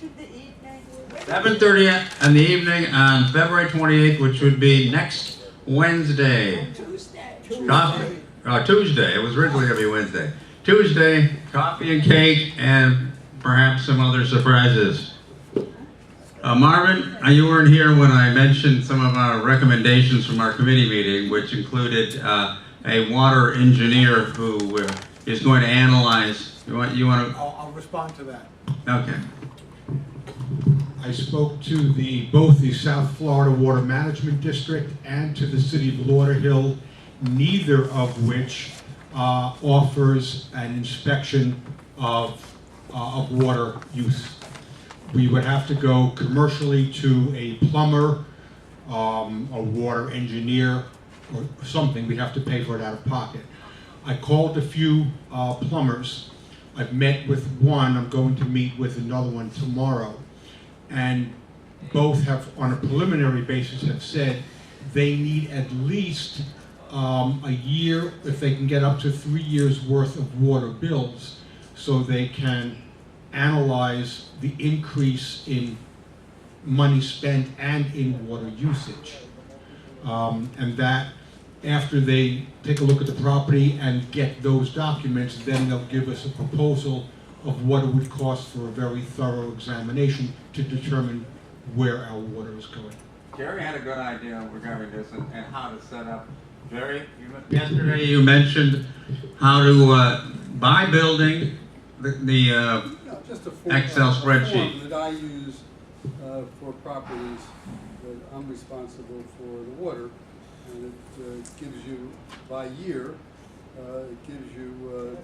to the evening. 7:30 in the evening on February 28th, which would be next Wednesday. Tuesday. Coffee, uh, Tuesday, it was originally gonna be Wednesday. Tuesday, coffee and cake and perhaps some other surprises. Uh, Marvin, uh, you weren't here when I mentioned some of our recommendations from our committee meeting, which included, uh, a water engineer who uh, is going to analyze, you want, you wanna, I'll, I'll respond to that. okay. I spoke to the, both the South Florida Water Management District and to the City of Lauderhill, neither of which uh, offers an inspection of, uh, of water use. We would have to go commercially to a plumber, um, a water engineer, or something, we'd have to pay for it out of pocket. I called a few uh, plumbers. I've met with one, I'm going to meet with another one tomorrow and both have, on a preliminary basis, have said they need at least um, a year, if they can get up to three years' worth of water bills, so they can analyze the increase in money spent and in water usage. Um, and that, after they take a look at the property and get those documents, then they'll give us a proposal of what it would cost for a very thorough examination to determine where our water is going. Jerry had a good idea regarding this and, and how to set up. Jerry, you men- yesterday you mentioned how to, uh, buy building, the, the, uh, No, just a form. Excel a form spreadsheet. That I use uh, for properties that I'm responsible for the water. And it uh, gives you, by year, uh, it gives you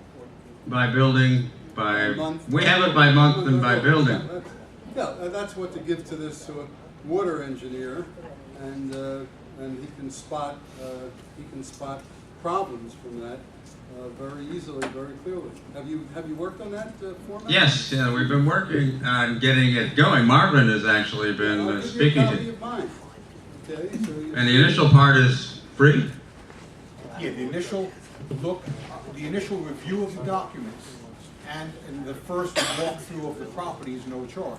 by building, uh, by, a month. we have it by month and by building. Yeah, that's- Yeah, and that's what to give to this uh, water engineer and, uh, and he can spot, uh, he can spot problems from that uh, very easily, very clearly. Have you, have you worked on that uh, format? Yes, yeah, we've been working on getting it going. Marvin has actually been I'll uh, give you a speaking copy to. of mine. Okay, so you- And the initial part is free. Yeah, the initial look, the initial review of the documents and, and the first walkthrough of the property is no charge.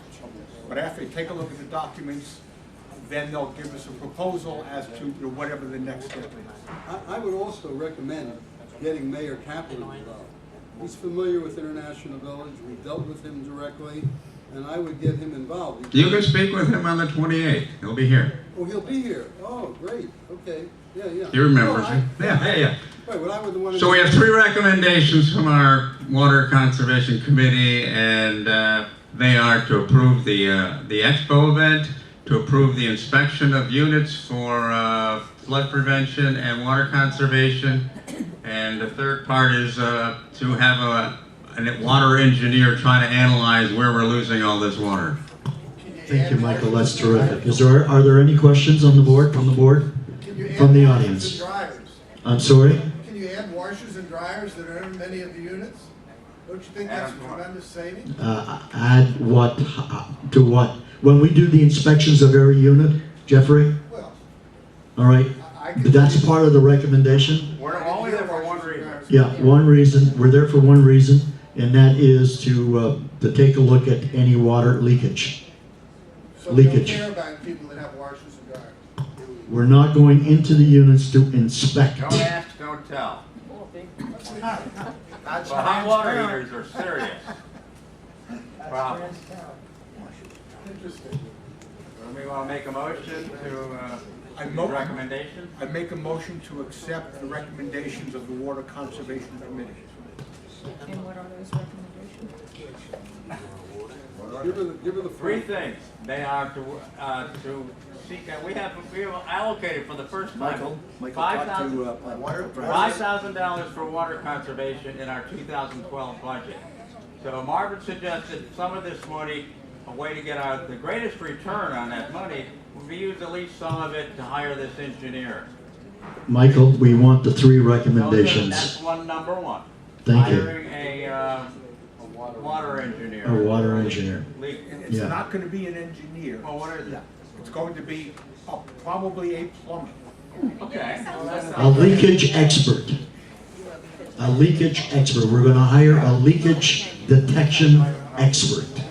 But after they take a look at the documents, then they'll give us a proposal as to you know, whatever the next step is. I, I would also recommend getting Mayor Kaplan involved. He's familiar with International Village, we dealt with him directly, and I would get him involved. You can speak with him on the 28th. He'll be here. Oh, he'll be here, oh, great, okay, yeah, yeah. He remembers No, Oh, I- you. Yeah, yeah, yeah. Right, what I would want to. So we have three recommendations from our Water Conservation Committee, and uh, they are to approve the, uh, the expo event, to approve the inspection of units for uh, flood prevention and water conservation, and the third part is uh, to have a, a water engineer try to analyze where we're losing all this water. Thank you, Michael, that's terrific. Is there, are there any questions on the board, from the board? Can you add From the washers audience. and dryers? I'm sorry? Can you add washers and dryers that are in many of the units? Don't you think that's a tremendous saving? Uh, add what, uh, to what? When we do the inspections of every unit, Jeffrey, Well, all right? I I can. That's part of the recommendation? We're Yeah, one reason, we're there for one reason, and that is to, uh, to take a look at any water leakage. So we don't Leakage. care about people that have washers and dryers. We're not going into the units to inspect. ask, don't tell. That's are serious. Interesting. We want to make a motion to, I mo- recommendation? I make a motion to accept the recommendations of the Water Conservation Committee. And what are those recommendations? Give her, the- give her the. Three form. things. They are to, uh, to seek, that we have, we have allocated for the first time, five uh, thousand, five thousand dollars for water conservation in our two thousand twelve budget. So Marvin suggested some of this money, a way to get our, the greatest return on that money, would be use at least some of it to hire this engineer. Michael, we want the three So recommendations. That's one, number one. Thank you. Hiring a, uh, water engineer. A water engineer. Leak. And it's Yeah. not gonna be an engineer. Well, what is it? It's going to be a- probably a plumber. Okay. A leakage expert. A leakage expert. We're gonna hire a leakage detection expert.